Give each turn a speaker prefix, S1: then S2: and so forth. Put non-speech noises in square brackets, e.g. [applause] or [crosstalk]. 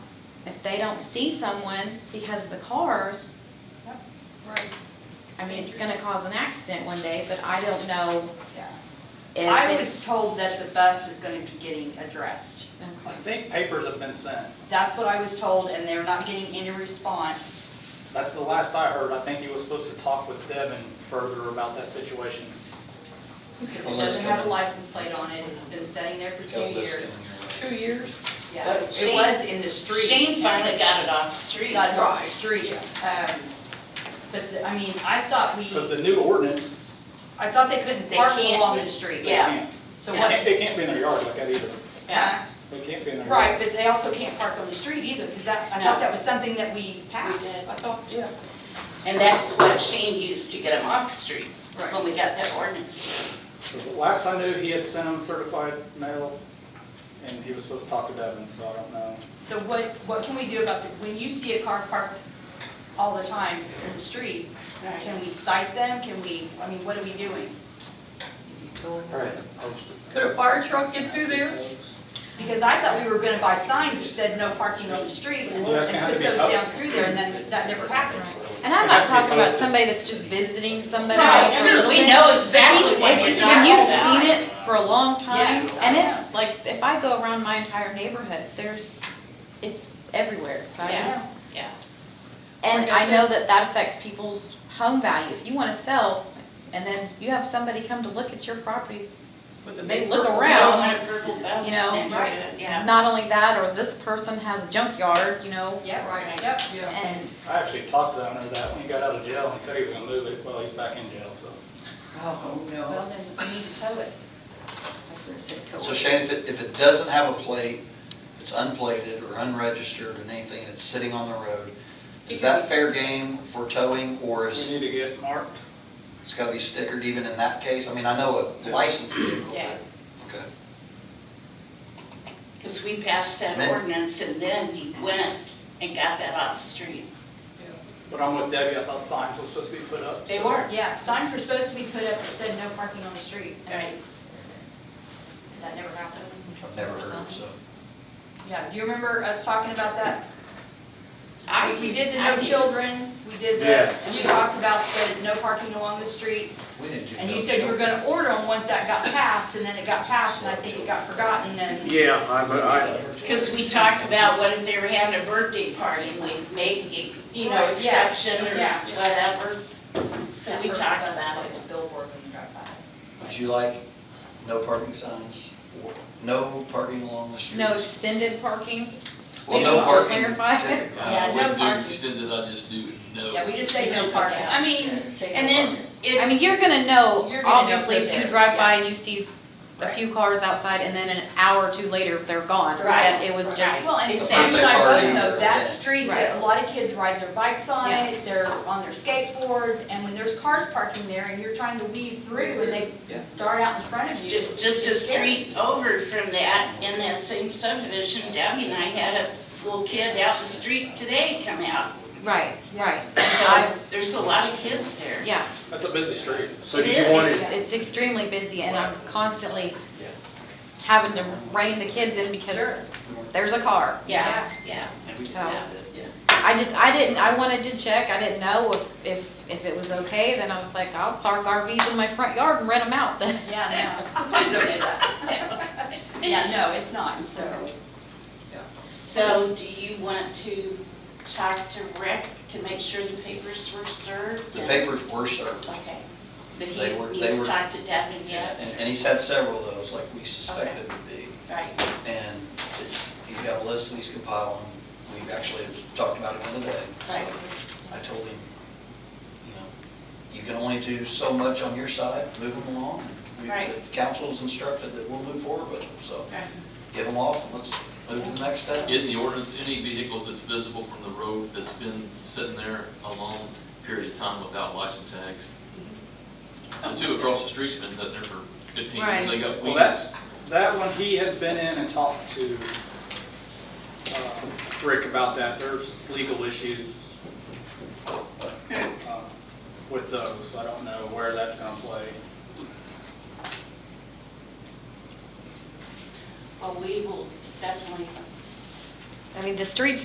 S1: if they don't see someone because of the cars,
S2: Right,
S1: I mean, it's gonna cause an accident one day, but I don't know
S2: yeah.
S1: if
S3: I was
S1: it's.
S3: told that the bus is gonna be getting addressed.
S4: I
S1: Okay.
S4: think papers have been sent.
S3: That's what I was told, and they're not getting any response.
S4: That's the last I heard. I think he was supposed to talk with Devin further about that situation.
S3: Because
S5: Well,
S3: it
S5: let's
S3: doesn't have a
S5: go.
S3: license plate on it, it's been sitting there for two years.
S2: Two years?
S3: Yeah,
S6: But
S3: it
S6: Shane-
S3: was in the street.
S6: Shane finally got it off the street.
S3: Got it off the street. Um, But, the- I mean, I thought
S4: Because
S3: we,
S4: the new ordinance,
S3: I thought they couldn't
S6: They
S3: park
S6: can't.
S3: along the street.
S4: it
S6: Yeah.
S4: can't,
S3: So
S4: it
S3: what,
S4: can't, it can't be in their yard like that either.
S6: Yeah.
S4: It can't be in their
S3: right,
S4: yard.
S3: but they also can't park on the street either, because that, I
S6: No.
S3: thought that was something that we passed.
S2: I thought, yeah.
S6: And that's what Shane used to get him off the street,
S3: Right.
S6: when we got that ordinance.
S4: The Last I knew, he had sent him certified mail, and he was supposed to talk to Devin, so I don't know.
S3: So what, what can we do about the, when you see a car parked all the time in the street, can we cite them? Can we, I mean, what are we doing?
S4: Right.
S2: Could a fire truck get through there?
S3: Because I thought we were gonna buy signs that said no parking on the street and
S4: Well, that's
S3: and
S4: gonna have
S3: put
S4: to be
S3: those
S4: up.
S3: down through there, and then that never happened.
S1: And I'm not talking about somebody that's just visiting somebody
S3: Right,
S1: else for a
S3: sure,
S1: little
S6: We
S1: bit.
S6: know exactly what we're
S1: It's,
S3: not
S1: when
S6: talking
S1: you've
S6: about.
S1: seen it for a long time,
S3: Yes, I
S1: and it's like, if I go around my entire neighborhood, there's, it's everywhere, so I
S6: Yeah.
S1: just.
S6: Yeah.
S1: And
S2: Like I
S1: I know that that affects people's home value, if you wanna sell, and then you have somebody come to look at your property,
S2: With the
S1: they
S2: big
S1: look
S2: purple-
S6: We don't
S1: around,
S6: want a purple bus
S1: you know,
S6: next
S3: right.
S6: to it, yeah.
S1: not only that, or this person has a junkyard, you know,
S3: Yep,
S2: Right.
S3: yep.
S2: Yeah.
S1: and,
S4: I actually talked to the owner of that when he got out of jail, and he said he was gonna move it, well, he's back in jail, so.
S2: Oh, no.
S3: Well, then we need to tow it.
S2: I should've said total.
S5: So Shane, if it, if it doesn't have a plate, it's unplated or unregistered and anything, and it's sitting on the road, is that fair game for towing, or
S4: We
S5: is,
S4: need to get it marked.
S5: it's gotta be stickered even in that case? I mean, I know a licensed vehicle, but,
S6: Yeah.
S5: okay.
S6: Because we passed that
S5: Then-
S6: ordinance and then he went and got that off the street.
S4: But I'm with Debbie, I thought signs were supposed to be put up. so-
S3: Yeah, signs were supposed to be put up that said no parking on the street.
S6: Right.
S3: That never happened.
S5: I've never heard, so.
S3: Yeah, do you remember us talking about that?
S6: I-
S3: We did the
S6: I-
S3: no children, we did
S4: Yeah.
S3: the, and you talked about the no parking along the street,
S5: We didn't do
S3: and
S5: no
S3: you said you were
S5: show.
S3: gonna order them once that got passed, and then it got passed, and I think it got forgotten, and,
S7: Yeah, I, but I,
S6: Because we talked about what if they were having a birthday party, and we made, you know,
S3: Right, yeah,
S6: exception or
S3: yeah.
S6: whatever. So we talked about it.
S3: Billboard when you drive by.
S5: Would you like no parking signs, or no parking along the street?
S1: no extended parking.
S5: Well,
S1: Maybe
S5: no
S1: we'll
S5: parking.
S1: clarify.
S5: typically.
S3: Yeah, no
S8: What
S3: parking.
S8: do you said that I just do, no.
S3: Yeah, we just say no parking, I mean,
S6: And then
S1: I
S6: if,
S1: mean, you're gonna know,
S3: You're gonna know
S1: obviously,
S3: for
S1: if you
S3: there,
S1: drive by
S3: yeah.
S1: and you see a
S3: Right.
S1: few cars outside, and then an hour or two later, they're gone.
S3: Right.
S1: That It was just,
S6: Right.
S3: well, and
S6: Exactly.
S3: Sam and I both
S5: Birthday
S3: know,
S5: party.
S3: that street, that
S1: Right.
S3: a lot of kids ride their bikes on
S1: Yeah.
S3: it, they're on their skateboards, and when there's cars parking there, and you're trying to weave through, and they
S2: Yeah.
S3: dart out in front of you.
S6: ju-
S3: it's-
S6: just a
S3: it's scary.
S6: street over from that, in that same subdivision, Debbie and I had a little kid out in the street today come out.
S1: right, right.
S6: So there's a lot of kids there.
S1: Yeah,
S4: That's a busy street.
S7: so do
S6: It
S7: you want
S6: is.
S7: it,
S1: it's extremely busy, and I'm constantly
S5: Yeah.
S1: having to rein the kids in
S3: Sure.
S1: because there's a car.
S6: Yeah, yeah.
S1: So-
S6: Yeah.
S1: I just, I didn't, I wanted to check, I didn't know if, if, if it was okay, then I was like, I'll park RVs in my front yard and rent them out [laughs] then.
S3: Yeah, no, please don't do that. [laughs] Yeah, no, it's not, so,
S6: So do you want to talk to Rick to make sure the papers were served?
S5: The papers were served.
S6: Okay, but
S5: They
S6: he
S5: were- they
S6: needs to
S5: were-
S6: talk to Devin yet?
S5: And, and he's had several of those, like we suspected would be.
S6: Right,
S5: And it's, he's got a list and he's compiling. We've actually talked about it the other day.
S6: right.
S5: I told him, you know, you can only do so much on your side, move them along. We-
S6: Right.
S5: The council's instructed that we'll move forward with them, so
S6: Right.
S5: get them off and let's move to the next step.
S8: In the ordinance, any vehicles that's visible from the road that's been sitting there a long period of time without license tags. The two across the street's been sitting there for fifteen years, they got
S4: Well,
S8: weeds.
S4: that's, that one, he has been in and talked to uh, Rick about that. There's legal issues um, with those. I don't know where that's gonna play.
S6: Well, we will definitely
S1: I mean, the streets